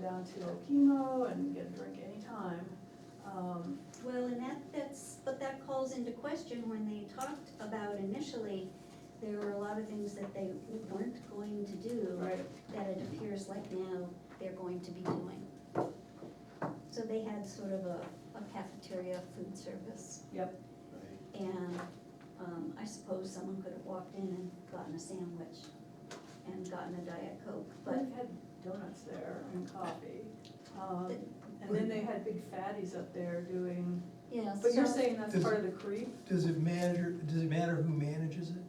down to Okemo and get a drink anytime. Um, Well, and that, that's, but that calls into question when they talked about initially, there were a lot of things that they weren't going to do. Right, That it appears like now they're going to be doing. So they had sort of a, a cafeteria food service. Yep. And, um, I suppose someone could have walked in and gotten a sandwich and gotten a Diet Coke, but but they had donuts there and coffee. Um, And then they had big fatties up there doing, Yeah, so. but you're saying that's Does- part of the creep? Does it manager, does it matter who manages it?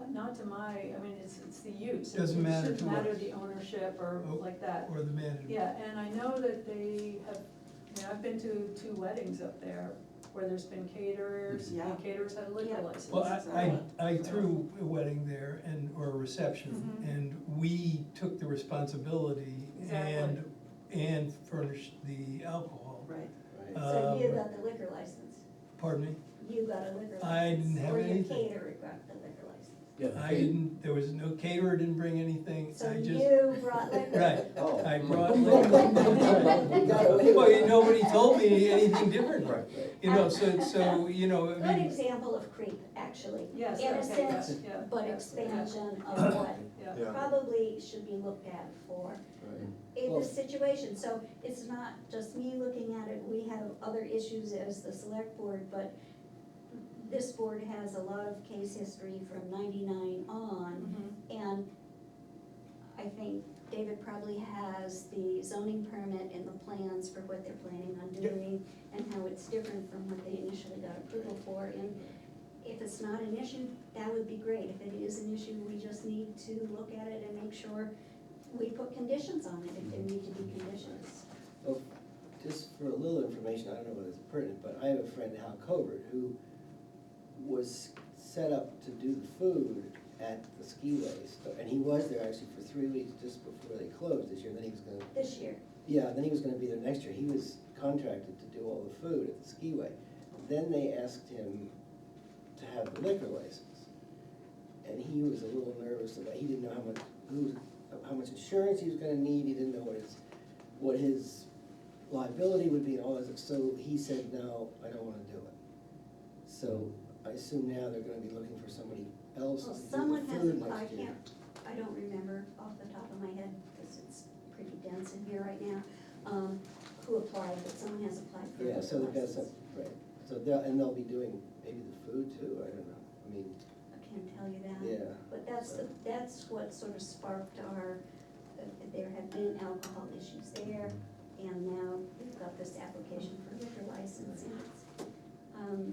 Uh, Not to my, I mean, it's, it's the use. It Doesn't matter shouldn't to matter us. the ownership or Oh. like that. Or the manager? Yeah, and I know that they have, I mean, I've been to two weddings up there where there's been caterers, Yeah. and caterers had a liquor Yeah. license. Well, I, I, I threw a wedding there and, or a reception, Mhm. and we took the responsibility and, and furnished the alcohol. Right, So you uh, um, got the liquor license, Pardon me? you got a liquor license. I didn't have anything. Or your caterer got the liquor license. Yeah, I they- didn't, there was no caterer, didn't bring anything, So I just, you brought liquor. right, Oh. I mm. brought liquor. We got away with Well, it. nobody told me anything different, Right, you know, so, so, you know, I Good mean, example of creep, actually. Yes, okay, yeah, Innocent, yeah, but expansion of what yeah. Yeah. probably should be looked at for in this situation. So it's not just me looking at it, we have other issues as the select board, but this board has a lot of case history from ninety-nine on. Mhm. And I think David probably has the zoning permit and the plans for what they're planning on doing and how it's different from what they initially got approval for. And if it's not an issue, that would be great. If it is an issue, we just need to look at it and make sure we put conditions on it if there need to be conditions. Oh, Just for a little information, I don't know whether it's pertinent, but I have a friend, Hal Covert, who was set up to do the food at the skiways. so- And he was there actually for three weeks just before they closed this year, then he was gonna, This year, yeah, then he was gonna be there next year. He was contracted to do all the food at the skiway. Then they asked him to have the liquor license. And he was a little nervous about, he didn't know how much, who, how much insurance he was gonna need, he didn't know what his, what his liability would be and all this, so he said, no, I don't wanna do it. So I assume now they're gonna be looking for somebody else to well, do someone the has, food I next year. can't, I don't remember off the top of my head, because it's pretty dense in here right now, um, who applied, but someone has applied for a Yeah, so they've got license. some, right, so they'll, and they'll be doing maybe the food too, I don't know, I mean, I can't tell you that. yeah, But that's, the that's what sort of sparked our, uh, there had been alcohol issues there, and now we've got this application for liquor license. and it's, um,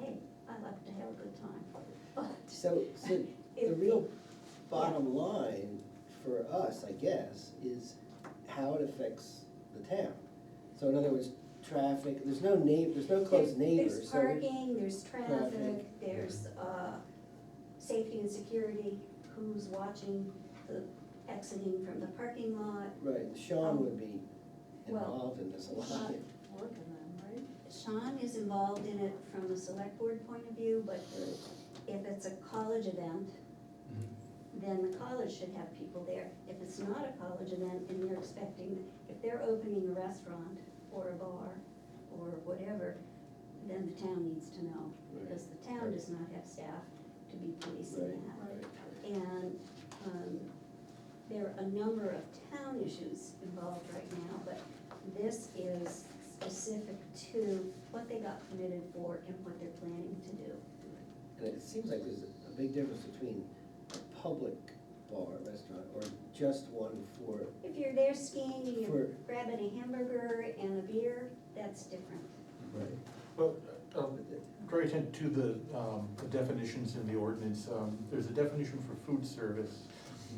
Hey, I love to have a good time, but so, so The it, real bottom line for us, I guess, is how it affects the town. So in other words, traffic, there's no neigh, there's no there's, close there's neighbors, so. parking, there's traffic, Traffic. there's, uh, safety and security, who's watching the exiting from the parking lot. Right, Sean would be Oh, Well, involved in this a lot. Sean- Working them, right? Sean is involved in it from a select board point of view, but if it's a college event, then the college should have people there. If it's not a college event and you're expecting, if they're opening a restaurant or a bar or whatever, then the town needs to know, because the town does not have staff to be policing Right. that. Right. And, um, there are a number of town issues involved right now, but this is specific to what they got committed for and what they're planning to do. And it seems like there's a big difference between a public bar, restaurant, or just one for, If you're there skiing and you're For- grabbing a hamburger and a beer, that's different. Well, um, draw your attention to the, um, the definitions in the ordinance. Um, There's a definition for food service.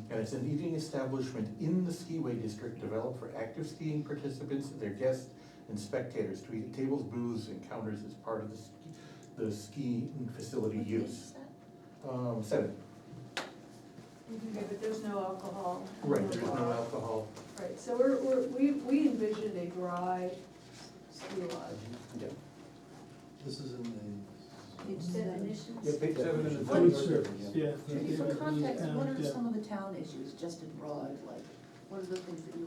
And it's an eating establishment in the skiway district developed for active skiing participants, their guests and spectators to eat at tables, booths and counters as part of the ski, the skiing facility use. Um, seven, Okay, but there's no alcohol. in right, the there's no bar. alcohol. Right, so we're, we're, we, we envisioned a dry ski lodge. yeah, this is in the. Each definition. Yeah, page seven in the. Food service, yeah. Judy, for context, what are Yeah. some of the town issues, just in broad, like, what are the things that you